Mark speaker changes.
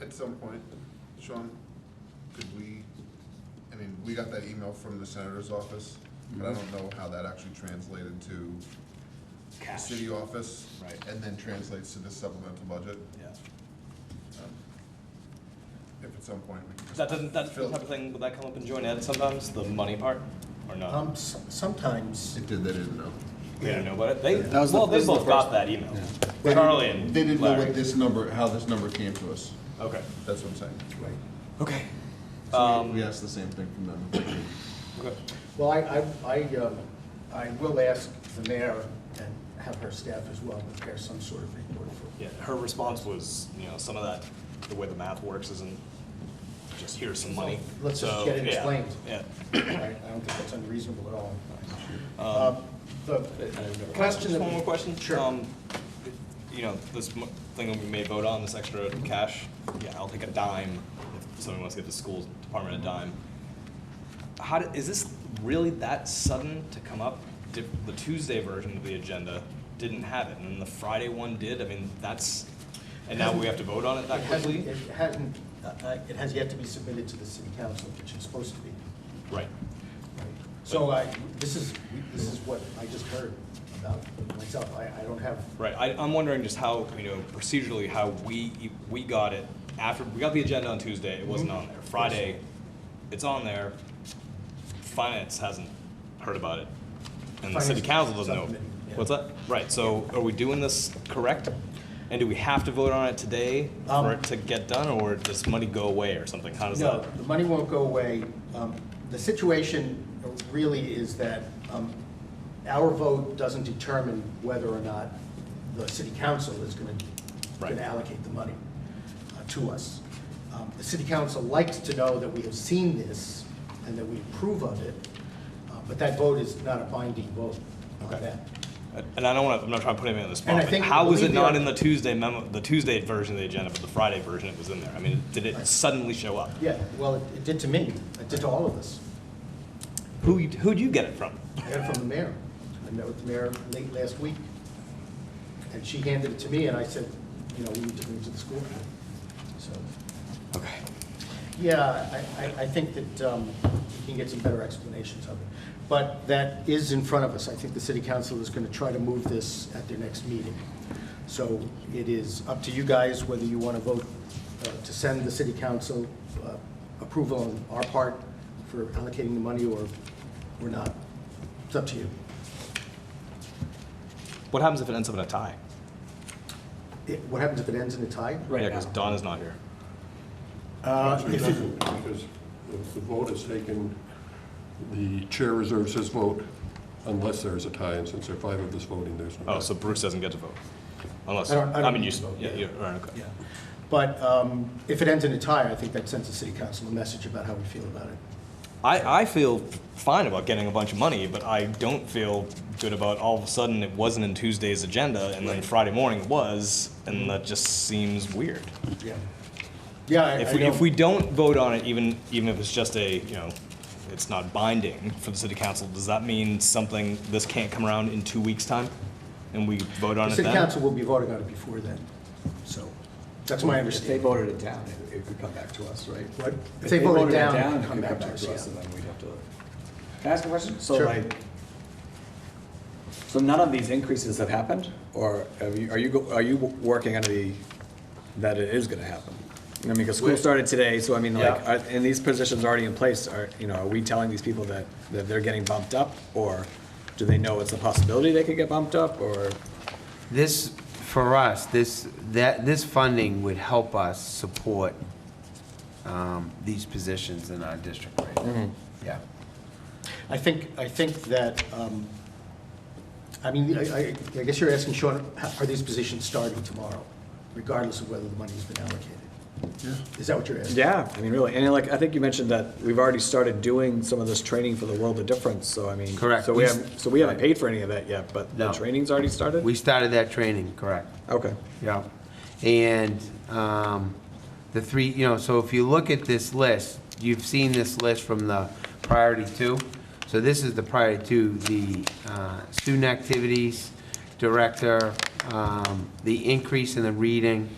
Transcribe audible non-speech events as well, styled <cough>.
Speaker 1: at some point, Sean, could we, I mean, we got that email from the senator's office, but I don't know how that actually translated to the
Speaker 2: Cash.
Speaker 1: city office.
Speaker 2: Right.
Speaker 1: And then translates to the supplemental budget.
Speaker 2: Yeah.
Speaker 1: Um, If at some point we can just.
Speaker 3: That doesn't, that's the
Speaker 1: fill-
Speaker 3: type of thing, would that come up in joint ed sometimes, the money part, or not?
Speaker 4: Um, s- sometimes,
Speaker 1: It did, they didn't know.
Speaker 3: They didn't know about it, they,
Speaker 5: That was the-
Speaker 3: well, they
Speaker 5: this is the
Speaker 3: both got that email,
Speaker 1: They didn't-
Speaker 3: Carly and
Speaker 1: They didn't know
Speaker 3: Oh, Larry.
Speaker 1: what this number, how this number came to us,
Speaker 3: Okay,
Speaker 1: that's what I'm saying.
Speaker 3: okay.
Speaker 1: So we-
Speaker 3: Um,
Speaker 1: We asked the same thing from them.
Speaker 3: okay.
Speaker 4: well, I, I, I, um, I will ask the mayor and have her staff as well prepare some sort of report for.
Speaker 3: Yeah, her response was, you know, some of that, the way the math works isn't just here's some money.
Speaker 4: Let's just
Speaker 3: So,
Speaker 4: get it
Speaker 3: yeah,
Speaker 4: explained.
Speaker 3: Yeah. <coughs>
Speaker 4: I I don't think that's unreasonable at all.
Speaker 3: Um,
Speaker 4: Uh, The question
Speaker 3: Just
Speaker 4: that.
Speaker 3: one more question?
Speaker 4: Sure.
Speaker 3: Um, You know, this mo- thing that we may vote on, this extra cash, yeah, I'll take a dime if someone wants to give the school department a dime. How, did- is this really that sudden to come up? Did- The Tuesday version of the agenda didn't have it, and then the Friday one did? I mean, that's, and now we have to vote on it
Speaker 4: It
Speaker 3: that
Speaker 4: hasn't,
Speaker 3: quickly?
Speaker 4: it hasn't, uh, uh, it has yet to be submitted to the city council, which it's supposed to be.
Speaker 3: Right.
Speaker 4: So I, this is, this is what I just heard about myself. I, I don't have
Speaker 3: Right, I, I'm wondering just how, you know, procedurally, how we, we got it after, we got the agenda on Tuesday, it
Speaker 4: Mm-hmm.
Speaker 3: wasn't on there. Friday, it's on there, finance hasn't heard about it, and the city
Speaker 4: Finance
Speaker 3: council doesn't know.
Speaker 4: subcommittee, yeah.
Speaker 3: What's that? Right, so are we doing this correct? And do we have to vote on it today for
Speaker 4: Um,
Speaker 3: it to get done, or does money go away or something? How does
Speaker 4: No,
Speaker 3: that?
Speaker 4: the money won't go away. Um, The situation really is that um, our vote doesn't determine whether or not the city council is going
Speaker 3: Right.
Speaker 4: to allocate the money uh, to us. Um, The city council likes to know that we have seen this and that we approve of it, uh, but that vote is not a binding vote on
Speaker 3: Okay.
Speaker 4: that.
Speaker 3: And I don't want to, I'm not trying to put anybody on the
Speaker 4: And I
Speaker 3: spot, but
Speaker 4: think-
Speaker 3: how was
Speaker 4: believe
Speaker 3: it
Speaker 4: me,
Speaker 3: not
Speaker 4: I-
Speaker 3: in the Tuesday memo, the Tuesday version of the agenda, but the Friday version it was in there? I mean, did it
Speaker 4: Right.
Speaker 3: suddenly show up?
Speaker 4: Yeah, well, it it did to me. It did to all of us.
Speaker 3: Who you- who'd you get it from?
Speaker 4: I heard from the mayor. I met with the mayor late last week, and she handed it to me, and I said, you know, we need to bring it to the school. So,
Speaker 3: Okay.
Speaker 4: yeah, I, I, I think that um, we can get some better explanations of it. But that is in front of us. I think the city council is going to try to move this at their next meeting. So it is up to you guys whether you want to vote uh, to send the city council uh, approval on our part for allocating the money or, or not. It's up to you.
Speaker 3: What happens if it ends up in a tie?
Speaker 4: It- What happens if it ends in a tie?
Speaker 3: Right. Yeah, because Don is not here.
Speaker 4: Uh,
Speaker 6: Actually, it
Speaker 4: if it-
Speaker 6: doesn't, because if the vote is taken, the chair reserves his vote unless there's a tie, and since there are five of us voting, there's no tie.
Speaker 3: Oh, so Bruce doesn't get to vote, unless
Speaker 4: I don't- I
Speaker 3: I
Speaker 4: don't
Speaker 3: mean
Speaker 4: need
Speaker 3: you.
Speaker 4: to
Speaker 3: s-
Speaker 4: vote,
Speaker 3: Yeah,
Speaker 4: yeah.
Speaker 3: you're right. Okay.
Speaker 4: Yeah. But um, if it ends in a tie, I think that sends the city council a message about how we feel about it.
Speaker 3: I I feel fine about getting a bunch of money, but I don't feel good about all of a sudden it wasn't in Tuesday's agenda and then Friday morning it was, and that just seems weird.
Speaker 4: Yeah. Yeah, I I
Speaker 3: If we, if
Speaker 4: don't-
Speaker 3: we don't vote on it, even, even if it's just a, you know, it's not binding for the city council, does that mean something, this can't come around in two weeks' time? And we vote on
Speaker 4: The
Speaker 3: it
Speaker 4: city
Speaker 3: then?
Speaker 4: council will be voting on it before then, so that's my
Speaker 2: If they
Speaker 4: understanding.
Speaker 2: voted it down, it- it could come back to us, right?
Speaker 4: What? If they voted down, it
Speaker 2: it
Speaker 4: could come
Speaker 2: could
Speaker 4: back to us, yeah.
Speaker 2: and then we'd have to. Can I ask a question? So
Speaker 4: Sure.
Speaker 2: like, so none of these increases have happened, or have you- are you, go- are you w- working under the, that it is gonna happen? I mean, because school started today, so I mean, like,
Speaker 4: Yeah.
Speaker 2: are- and these positions are already in place, are, you know, are we telling these people that, that they're getting bumped up? Or do they know it's a possibility they could get bumped up, or?
Speaker 5: This, for us, this, that, this funding would help us support um, these positions in our district right now. Yeah.
Speaker 4: I think, I think that, um, I mean, I I- I guess you're asking, Sean, h- are these positions starting tomorrow, regardless of whether the money's been allocated? Is that what you're asking?
Speaker 2: Yeah, I mean, really, and like, I think you mentioned that we've already started doing some of this training for the world of difference, so I mean.
Speaker 5: Correct.
Speaker 2: So we haven't, so we haven't paid for any of that yet, but the
Speaker 5: No.
Speaker 2: training's already started?
Speaker 5: We started that training, correct.
Speaker 2: Okay,
Speaker 5: Yeah. And um, the three, you know, so if you look at this list, you've seen this list from the priority two. So this is the priority two, the uh, student activities director, um, the increase in the reading,